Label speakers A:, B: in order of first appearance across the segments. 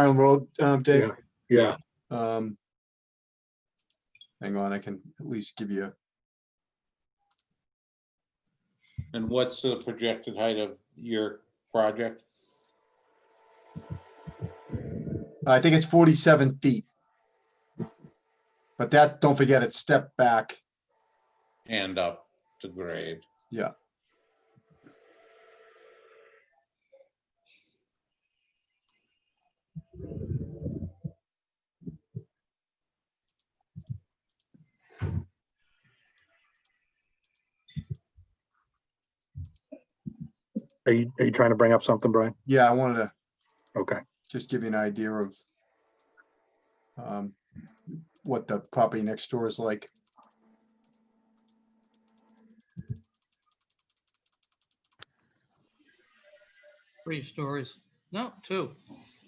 A: Farnham Road, um, Dave.
B: Yeah,
A: Um, Hang on, I can at least give you,
C: And what's the projected height of your project?
A: I think it's forty-seven feet. But that, don't forget, it's step back.
C: And up to grade.
A: Yeah.
B: are you, are you trying to bring up something, Brian?
A: Yeah, I wanted to
B: Okay,
A: just give you an idea of um, what the property next door is like.
D: Three stories. No, two.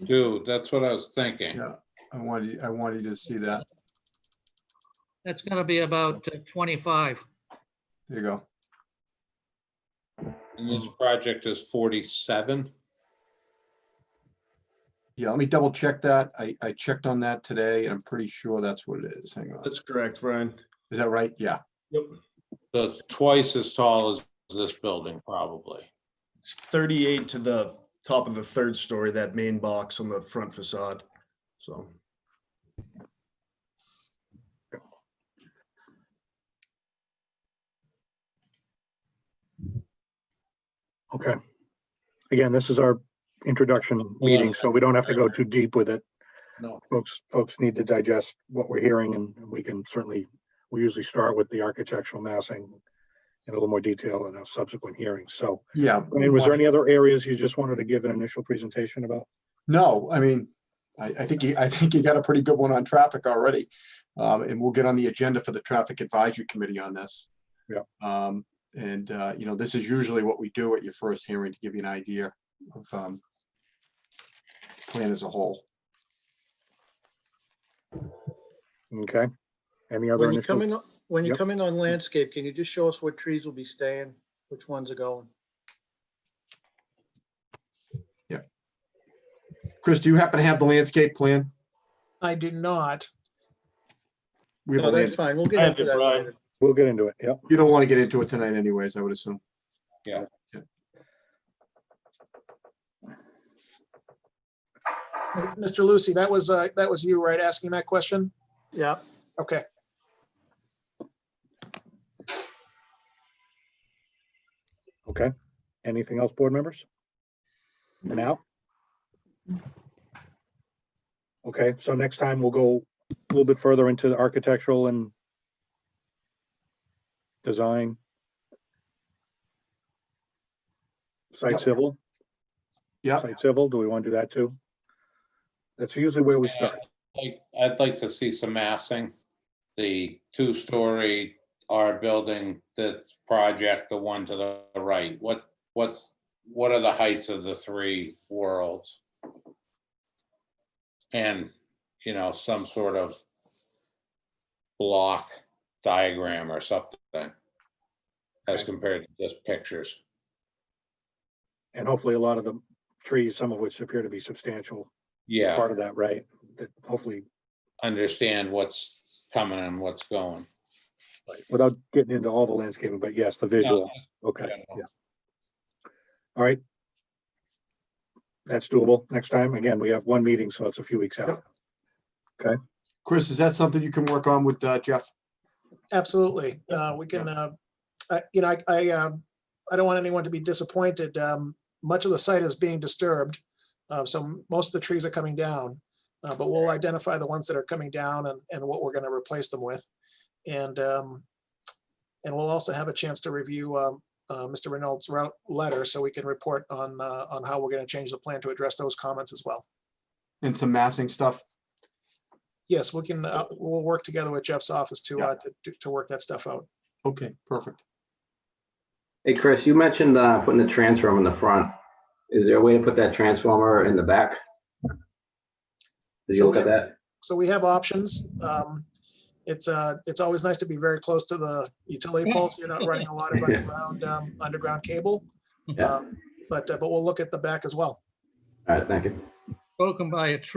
C: Dude, that's what I was thinking.
A: Yeah. I wanted, I wanted you to see that.
D: That's gonna be about uh, twenty-five.
A: There you go.
C: And this project is forty-seven?
A: Yeah, let me double check that. I, I checked on that today and I'm pretty sure that's what it is. Hang on.
E: That's correct, Brian.
A: Is that right? Yeah.
E: Yep.
C: So it's twice as tall as this building, probably.
E: It's 38 to the top of the third story, that main box on the front facade. So
B: okay. Again, this is our introduction meeting, so we don't have to go too deep with it.
C: No.
B: Folks, folks need to digest what we're hearing and we can certainly, we usually start with the architectural massing in a little more detail in a subsequent hearing. So,
A: Yeah.
B: I mean, was there any other areas you just wanted to give an initial presentation about?
A: No, I mean, I, I think, you- I think you got a pretty good one on traffic already. Um, and we'll get on the agenda for the Traffic Advisory Committee on this.
B: Yeah.
A: Um, and, uh, you know, this is usually what we do at your first hearing to give you an idea of, um, plan as a whole.
B: Okay. Any other
F: When you come
B: initial?
F: in, when you
B: Yep.
F: come in on landscape, can you just show us what trees will be staying, which ones are going?
A: Chris, do you happen to have the landscape plan?
G: I do not.
A: We have a
F: No,
A: landscape.
F: that's fine. We'll get
E: I have
F: into
E: it,
F: that
E: Brian.
F: later.
B: We'll get into it. Yep.
A: You don't want to get into it tonight anyways, I would assume.
C: Yeah.
G: Mr. Lucy, that was, uh, that was you, right, asking that question?
F: Yeah,
G: Okay.
B: Okay. Anything else, board members? For now? Okay, so next time we'll go a little bit further into the architectural and design. Site
A: Yep.
B: civil,
A: Yeah,
B: site civil, do we want to do that too? That's usually where we
C: Yeah,
B: start.
C: Like, I'd like to see some massing. The two-story R building, that's project, the one to the right, what, what's, what are the heights of the three worlds? And, you know, some sort of block diagram or something as compared to just pictures.
B: And hopefully a lot of the trees, some of which appear to be substantial,
C: Yeah.
B: part of that, right? That hopefully,
C: understand what's coming and what's going.
B: without getting into all the landscaping, but yes, the visual. Okay,
C: General.
B: yeah. All right. That's doable. Next time, again, we have one meeting, so it's a few weeks out.
A: Chris, is that something you can work on with uh, Jeff?
G: Absolutely. Uh, we can, uh, I- you know, I, I, um, I don't want anyone to be disappointed. Um, much of the site is being disturbed. Uh, so most of the trees are coming down, uh, but we'll identify the ones that are coming down and, and what we're gonna replace them with. And, um, and we'll also have a chance to review, um, uh, Mr. Reynolds' route letter, so we can report on, uh, on how we're gonna change the plan to address those comments as well.
A: And some massing stuff?
G: Yes, we can, uh, we'll work together with Jeff's office to, uh, to- to, to work that stuff out.
A: Okay, perfect.
H: Hey, Chris, you mentioned uh, putting the transformer in the front. Is there a way to put that transformer in the back? Did you look at that?
G: So we have options. Um, It's, uh, it's always nice to be very close to the utility pole, so you're not running a lot of underground, um, underground cable.
H: Yeah.
G: Um, But, uh, but we'll look at the back as well.
H: All right, thank you.
D: Broken by a tree.